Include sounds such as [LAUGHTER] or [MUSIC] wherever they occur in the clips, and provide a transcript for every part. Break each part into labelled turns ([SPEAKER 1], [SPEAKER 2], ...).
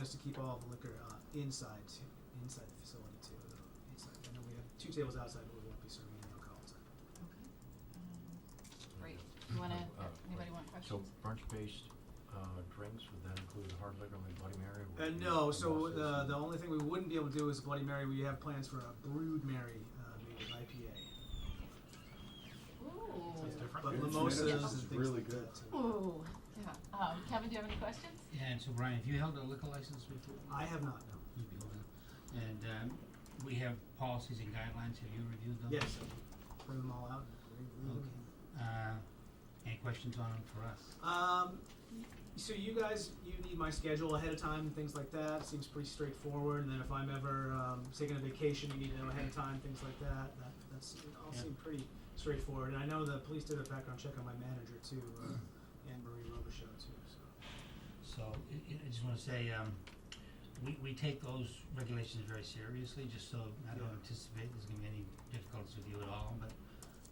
[SPEAKER 1] us to keep all the liquor uh, inside to, inside the facility too. though. Inside. I know we have two tables outside, but we won't be serving any alcohol outside.
[SPEAKER 2] Great. You wanna,
[SPEAKER 3] Uh,
[SPEAKER 2] anybody want
[SPEAKER 3] So
[SPEAKER 2] questions?
[SPEAKER 3] brunch-based, uh, drinks, would that include hard liquor like Bloody Mary? or
[SPEAKER 1] Uh,
[SPEAKER 3] would it be
[SPEAKER 1] no, so uh,
[SPEAKER 3] mimosas
[SPEAKER 4] uh,
[SPEAKER 1] the,
[SPEAKER 3] and-
[SPEAKER 1] the only thing we wouldn't be able to do is Bloody Mary. We have plans for a Brood Mary, uh, made with IPA.
[SPEAKER 2] Ooh.
[SPEAKER 5] Sounds different.
[SPEAKER 1] But
[SPEAKER 5] Yeah,
[SPEAKER 1] mimosas
[SPEAKER 2] yeah,
[SPEAKER 1] and
[SPEAKER 2] sounds
[SPEAKER 1] things
[SPEAKER 5] really
[SPEAKER 1] like
[SPEAKER 5] good.
[SPEAKER 1] that. too.
[SPEAKER 2] Ooh, yeah. Um, Kevin, do you have any questions?
[SPEAKER 6] Yeah, and so Brian, have you held a liquor license before?
[SPEAKER 1] I have not, no.
[SPEAKER 6] You'd be holding. And um, we have policies and guidelines. Have you reviewed those?
[SPEAKER 1] Yes, I bring them all out.
[SPEAKER 6] Okay. Uh, any questions on them for us?
[SPEAKER 1] Um, so you guys, you need my schedule ahead of time and things like that. Seems pretty straightforward. And then if I'm ever um, taking a vacation, you need to know ahead of time things like that. That that's it all
[SPEAKER 6] Yeah.
[SPEAKER 1] seemed pretty straightforward. And I know the police did a background check on my manager too, uh,
[SPEAKER 2] [CLEARS THROAT]
[SPEAKER 1] Anne Marie Robichaud too. So
[SPEAKER 6] So I, I- I just want to say um, we, we take those regulations very seriously. Just so I don't
[SPEAKER 1] Yeah.
[SPEAKER 6] anticipate there's going to be any difficulties with you at all, but.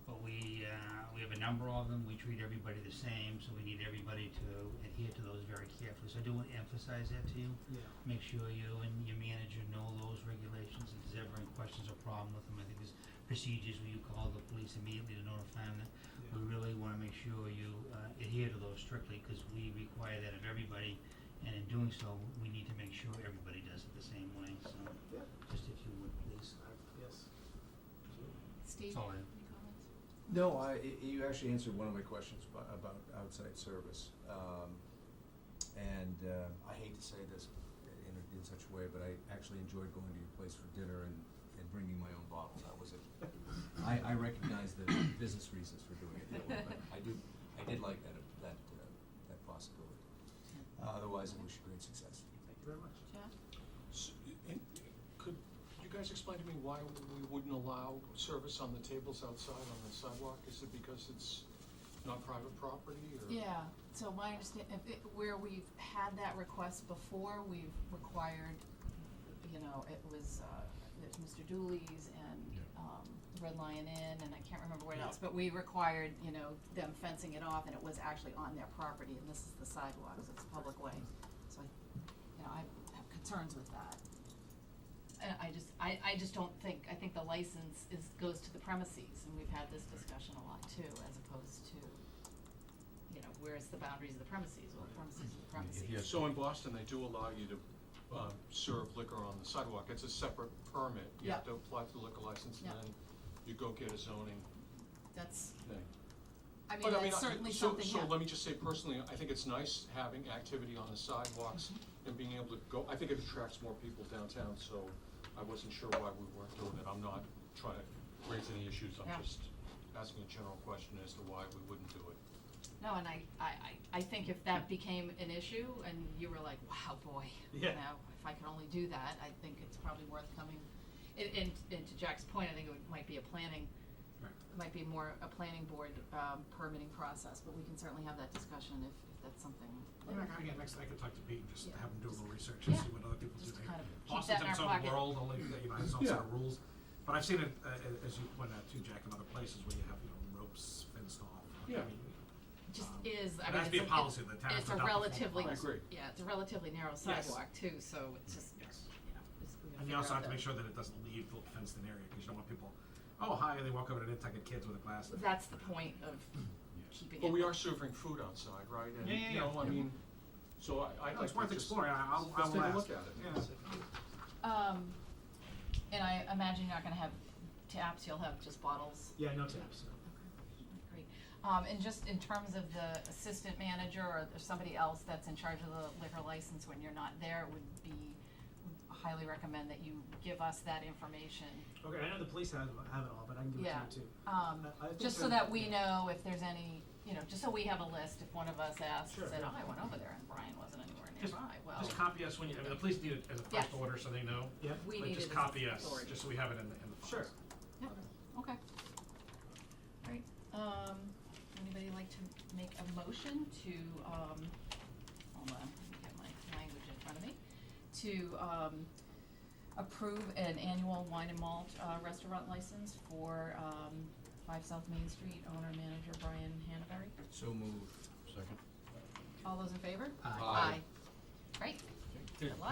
[SPEAKER 6] But we uh, we have a number of them. We treat everybody the same, so we need everybody to adhere to those very carefully. So I do want to emphasize that to you.
[SPEAKER 1] yeah,
[SPEAKER 6] make sure you and your manager know those regulations, if there's ever any questions or problem with them, I think there's procedures where you call the police immediately to notify them that we
[SPEAKER 1] yeah.
[SPEAKER 2] Mm-hmm.
[SPEAKER 6] really wanna make sure you uh adhere to those strictly, cause we require that of everybody, and in doing so, we need to make sure everybody does it the same way, so
[SPEAKER 1] Yeah.
[SPEAKER 6] just if you would please,
[SPEAKER 1] I- yes.
[SPEAKER 2] Steve, any
[SPEAKER 6] that's all I have.
[SPEAKER 2] comments?
[SPEAKER 5] No, I, y- you actually answered one of my questions bu- about outside service. Um, and uh, I hate to say this in, in such a way, but I actually enjoyed going to your place for dinner and, and bringing my own bottle. That was it. I, I recognize the business reasons for doing it that way, but I do, I did like that, that, uh, that possibility. Otherwise, I wish you great success.
[SPEAKER 1] Thank you very much.
[SPEAKER 2] Jeff?
[SPEAKER 4] S- and Could you guys explain to me why we wouldn't allow service on the tables outside on the sidewalk? Is it because it's not private property or?
[SPEAKER 2] Yeah, so my understand, if it, where we've had that request before, we've required, you know, it was, uh, it was Mr. Dooley's and,
[SPEAKER 3] Yeah.
[SPEAKER 2] um, Red Lion Inn, and I can't remember what else, but we required, you know, them fencing it off, and it was actually on their property, and this is the sidewalk, so it's a public way, so I, you know, I have concerns with that. And I just, I, I just don't think, I think the license is, goes to the premises, and we've had this discussion a lot too, as opposed to, you know, where's the boundaries of the premises, well, the premises is the
[SPEAKER 3] I mean,
[SPEAKER 2] premises.
[SPEAKER 3] If you have
[SPEAKER 4] So in Boston, they do allow you to, uh, serve liquor on the sidewalk. It's a separate permit. You
[SPEAKER 2] Yeah.
[SPEAKER 4] have to apply for the liquor license and
[SPEAKER 2] Yeah.
[SPEAKER 4] then you go get a zoning
[SPEAKER 2] That's,
[SPEAKER 4] thing.
[SPEAKER 2] I mean,
[SPEAKER 4] But I mean,
[SPEAKER 2] that's
[SPEAKER 4] I-
[SPEAKER 2] certainly
[SPEAKER 4] so-
[SPEAKER 2] something, yeah.
[SPEAKER 4] So let me just say personally, I think it's nice having activity on the sidewalks
[SPEAKER 2] Mm-hmm.
[SPEAKER 4] and being able to go, I think it attracts more people downtown, so I wasn't sure why we weren't doing it. I'm not trying to raise any issues,
[SPEAKER 2] Yeah.
[SPEAKER 4] I'm just asking a general question as to why we wouldn't do it.
[SPEAKER 2] No, and I, I, I I think if
[SPEAKER 5] [LAUGHS]
[SPEAKER 2] that became an issue and you were like, wow, boy, you
[SPEAKER 1] Yeah.
[SPEAKER 2] know, if I could only do that, I think it's probably worth coming. And, and, and to Jack's point, I think it would- might be a planning,
[SPEAKER 6] Right.
[SPEAKER 2] it might be more a planning board, um, permitting process, but we can certainly have that discussion if, if that's something.
[SPEAKER 5] I mean, I- again, next, I could talk to Pete and just
[SPEAKER 2] Yeah.
[SPEAKER 5] have him do a little research and
[SPEAKER 2] Yeah.
[SPEAKER 5] see what other people do.
[SPEAKER 2] Just to kind of keep
[SPEAKER 5] Boston's
[SPEAKER 2] that in
[SPEAKER 5] its
[SPEAKER 2] our
[SPEAKER 5] own
[SPEAKER 2] pocket.
[SPEAKER 5] world, only, that, you know, has its own set of
[SPEAKER 4] Yeah.
[SPEAKER 5] rules, but I've seen it, uh, uh, as you pointed out too, Jack, in other places where you have, you know, ropes fenced off. I
[SPEAKER 4] Yeah.
[SPEAKER 5] mean,
[SPEAKER 2] Just
[SPEAKER 5] Um,
[SPEAKER 2] is, I mean,
[SPEAKER 5] it has
[SPEAKER 2] it's
[SPEAKER 5] to be
[SPEAKER 2] a,
[SPEAKER 5] a policy that the town has
[SPEAKER 2] it's
[SPEAKER 5] to
[SPEAKER 2] a
[SPEAKER 5] adopt before-
[SPEAKER 2] relatively,
[SPEAKER 4] I agree.
[SPEAKER 2] yeah, it's a relatively narrow
[SPEAKER 5] Yes.
[SPEAKER 2] sidewalk too, so it's just,
[SPEAKER 5] Yes.
[SPEAKER 2] you know, it's, we gotta
[SPEAKER 5] And
[SPEAKER 2] figure
[SPEAKER 5] you also
[SPEAKER 2] out
[SPEAKER 5] have to
[SPEAKER 2] that-
[SPEAKER 5] make sure that it doesn't leave the fenced in area, because you don't want people, oh, hi, and they walk over to nitpick at kids with a glass.
[SPEAKER 2] That's the point of keeping it.
[SPEAKER 4] But we are serving food outside, right?
[SPEAKER 5] Yeah, yeah,
[SPEAKER 4] And, you know, I
[SPEAKER 5] yeah.
[SPEAKER 4] mean, so I, I
[SPEAKER 5] No,
[SPEAKER 4] like
[SPEAKER 5] It's
[SPEAKER 4] to
[SPEAKER 5] worth
[SPEAKER 4] just-
[SPEAKER 5] exploring, I, I'll, I
[SPEAKER 4] Let's
[SPEAKER 5] will
[SPEAKER 4] take a
[SPEAKER 5] ask.
[SPEAKER 4] look at it.
[SPEAKER 5] Yeah.
[SPEAKER 2] Um, and I imagine you're not gonna have taps, you'll have just bottles.
[SPEAKER 1] Yeah, no taps. No.
[SPEAKER 2] Great. Um, and just in terms of the assistant manager or or somebody else that's in charge of the liquor license when you're not there, it would be, would highly recommend that you give us that information.
[SPEAKER 1] Okay, I know the police have have it all, but I can give
[SPEAKER 2] Yeah.
[SPEAKER 1] it to you too.
[SPEAKER 2] Um,
[SPEAKER 1] I- I think
[SPEAKER 2] just so
[SPEAKER 1] I'm-
[SPEAKER 2] that we know if there's any, you know, just so we have a list, if one of us asks,
[SPEAKER 1] Sure,
[SPEAKER 2] said,
[SPEAKER 1] yeah.
[SPEAKER 2] oh, I went over there and Brian wasn't anywhere
[SPEAKER 5] Just-
[SPEAKER 2] nearby, well,
[SPEAKER 5] Just copy us when you, I mean, the police need it as a first
[SPEAKER 2] Yes.
[SPEAKER 5] order, so they know.
[SPEAKER 1] Yeah.
[SPEAKER 2] we
[SPEAKER 5] Like,
[SPEAKER 2] need it as
[SPEAKER 5] just copy us,
[SPEAKER 2] authority.
[SPEAKER 5] just so we have it in the, in the files.
[SPEAKER 1] Sure.
[SPEAKER 2] Yep, okay. All right, um, anybody like to make a motion to, um, hold on, let me get my language in front of me, to, um, approve an annual wine and malt, uh, restaurant license for, um, Five South Main Street, owner manager Brian Hanaberry.
[SPEAKER 5] So moved.
[SPEAKER 3] second.
[SPEAKER 2] All those in favor?
[SPEAKER 6] Aye.
[SPEAKER 4] Aye.
[SPEAKER 2] Great,
[SPEAKER 4] Yeah.
[SPEAKER 2] good luck.